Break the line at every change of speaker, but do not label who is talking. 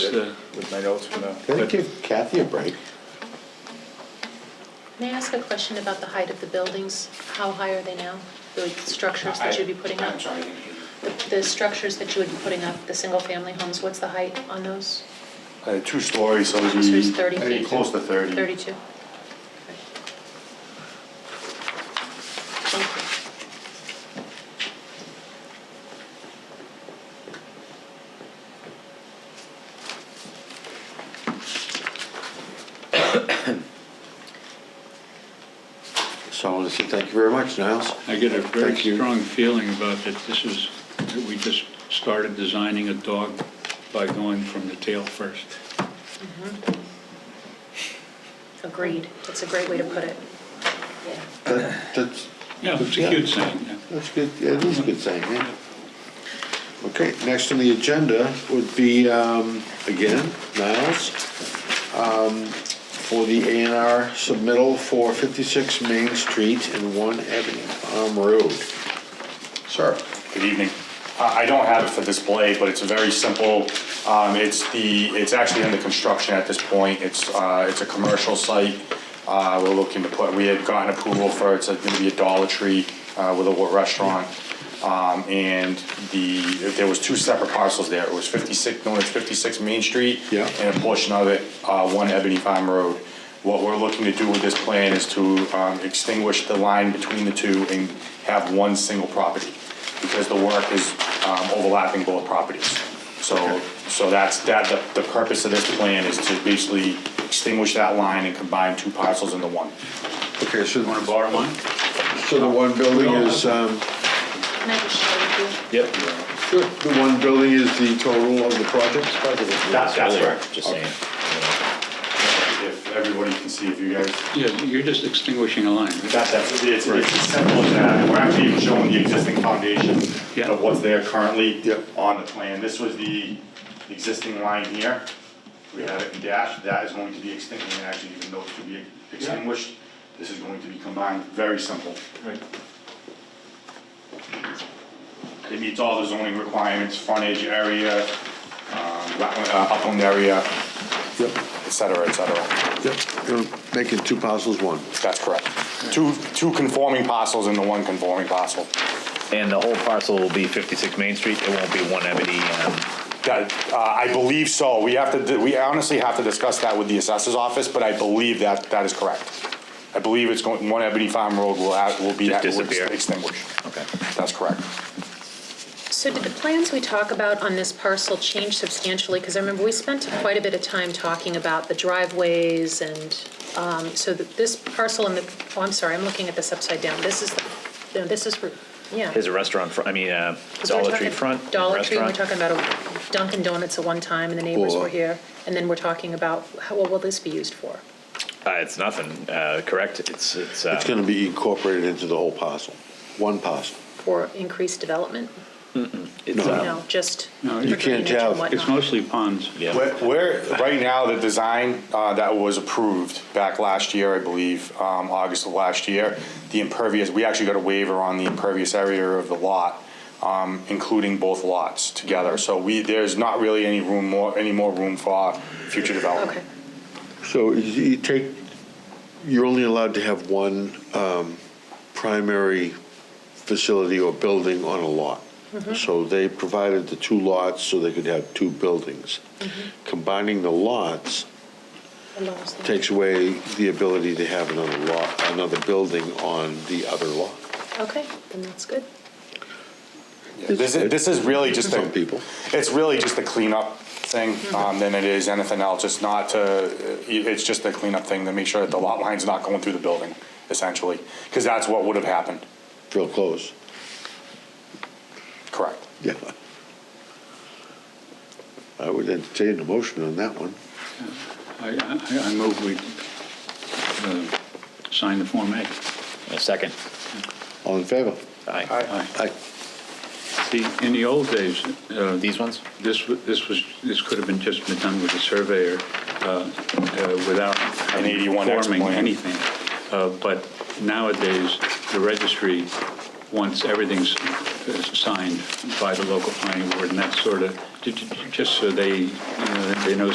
the,
with my notes from the.
Can I give Kathy a break?
May I ask a question about the height of the buildings? How high are they now? The structures that you'd be putting up?
I'm sorry, I didn't hear you.
The, the structures that you would be putting up, the single-family homes, what's the height on those?
Uh, two stories, so it'd
So it's
be,
30
I'd be
feet.
close to thirty.
Thirty-two? Okay. Thank you.
So I want to say thank you very much, Niles.
I get a very
Thank you.
strong feeling about that this is, that we just started designing a dog by going from the tail first.
Agreed. That's a great way to put it.
That- That's,
Yeah, it's a
Yeah.
cute saying, yeah.
that's good, yeah, it is a good thing, yeah. Okay, next on the agenda would be, um, again, Niles, um, for the A and R submittal for fifty-six Main Street and One Ebony Palm Road. Sir?
Good evening. I I don't have it for display, but it's very simple. Um, It's the, it's actually under construction at this point. It's, uh, it's a commercial site. Uh, We're looking to put, we had gotten approval for, it's going to be a Dollar Tree uh, with a wa- restaurant. Um, And the, there was two separate parcels there. It was 56, known as 56 Main Street.
Yeah.
And a portion of it, uh, 1 Ebony Farm Road. What we're looking to do with this plan is to um, extinguish the line between the two and have one single property because the work is um, overlapping both properties. So, so that's, that, the- the purpose of this plan is to basically extinguish that line and combine two parcels into one.
Okay, so,
Want to borrow mine?
so the one building is, um,
Can I just share with you?
Yep.
the one building is the total of the project?
That's, that's right.
Just saying.
If everybody can see, if you guys.
Yeah, you're just extinguishing a line. right?
That's, that's, it's, it's as simple as that, and we're actually even showing the existing foundation
Yeah.
of what's there currently
Yep.
on the plan. This was the existing line here, we have it in dash, that is going to be extinguished, and actually even though it should be extinguished, this is going to be combined, very simple.
Right.
It meets all the zoning requirements, frontage area, um, wetland, uh, upland area,
Yep,
et cetera, et cetera.
yep, you're making two parcels one.
That's correct. Two, two conforming parcels into one conforming parcel.
And the whole parcel will be 56 Main Street, it won't be one Ebony, um,
That, uh, I believe so. We have to, we honestly have to discuss that with the assessor's office, but I believe that, that is correct. I believe it's going, One Ebony Farm Road will, add- will be,
Just
will
disappear.
extinguished.
okay.
That's correct.
So did the plans we talk about on this parcel change substantially? Because I remember we spent quite a bit of time talking about the driveways and, um, so that this parcel and the, oh, I'm sorry, I'm looking at this upside down. This is, the no, this is, Route- yeah.
There's a restaurant, fr- I mean, uh,
'Cause we're
Dollar Tree
talking
front.
Dollar Tree, and we're
restaurant.
talking about a Dunkin' Donuts at one time, and the neighbors
Or-
were here. And then we're talking about, how- what will this be used for?
Uh, It's nothing, uh, correct, it's, it's, uh,
It's gonna be incorporated into the whole parcel, one parcel.
For increased development?
it's,
No.
um,
No, just.
No,
for
you
can't
drainage and
have-
whatnot.
It's mostly ponds.
yeah.
Where- Where, right now, the design uh, that was approved back last year, I believe, um, August of last year, the impervious, we actually got a waiver on the impervious area of the lot, um, including both lots together. So we, there's not really any room more, any more room for future development.
Okay.
So you you take, you're only allowed to have one um, primary facility or building on a lot.
Mm-hmm.
So they provided the two lots so they could have two buildings.
Mm-hmm.
Combining the lots
Allows them-
takes away the ability to have another lot, another building on the other lot.
Okay, then that's good.
This is, this is really just
Some
a,
people.
it's really just a cleanup thing um, than it is anything else. It's not to, it's just a cleanup thing to make sure that the lot line's not going through the building, essentially, because that's what would have happened.
Real close.
Correct.
Yeah. I would entertain a motion on that one.
I, I I move we uh, sign the Form A.
A second.
All in favor?
Aye.
Aye.
See, in the old days, uh,
These ones?
this, wa- this was, this could have been just been done with a surveyor uh, uh, without
An
having-
81X
forming
plan.
anything. Uh, But nowadays, the registry wants everything's uh, signed by the local planning board and that sort of, just so they, you know, they know